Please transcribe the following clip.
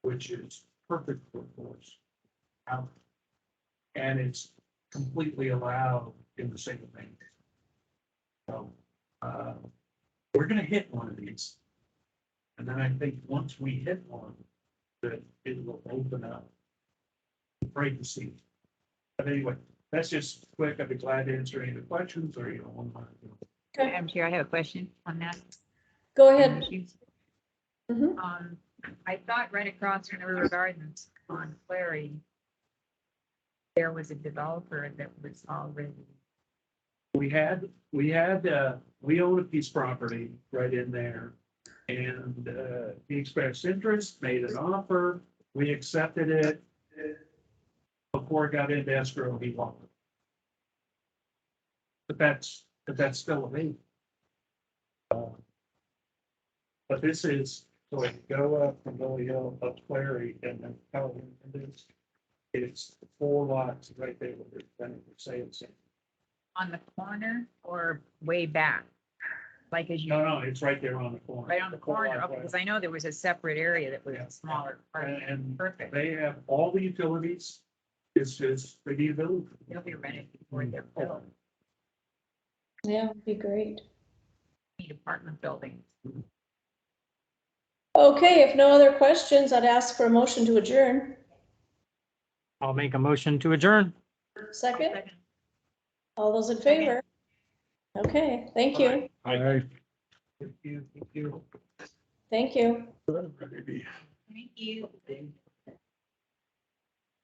which is perfect for horse. Out. And it's completely allowed in the same thing. So, uh, we're gonna hit one of these. And then I think once we hit one, that it will open up. Great to see. But anyway, that's just quick. I'd be glad to answer any of the questions or you know, one more. Madam Chair, I have a question on that. Go ahead. issues. Mhm. Um, I thought right across from the River Gardens on Clary, there was a developer that was already, We had, we had, uh, we own a piece of property right in there. And, uh, he expressed interest, made an offer, we accepted it. Before it got into escrow, he walked. But that's, but that's still a me. Um, But this is, so I go up from Gully Hill up Clary and then how it is. It's four lots right there where they're planning for sale. on the corner or way back? Like as you, No, no, it's right there on the corner. right on the corner, Right. okay, because I know there was a separate area that was Yeah. smaller. part. And and Perfect. they have all the utilities. It's just, they need those. They'll be ready before they're built. Yeah, it'd be great. Need apartment buildings. Okay, if no other questions, I'd ask for a motion to adjourn. I'll make a motion to adjourn. Second, all those in favor? Okay, thank you, Aye. If you, if you. thank you. Thank you.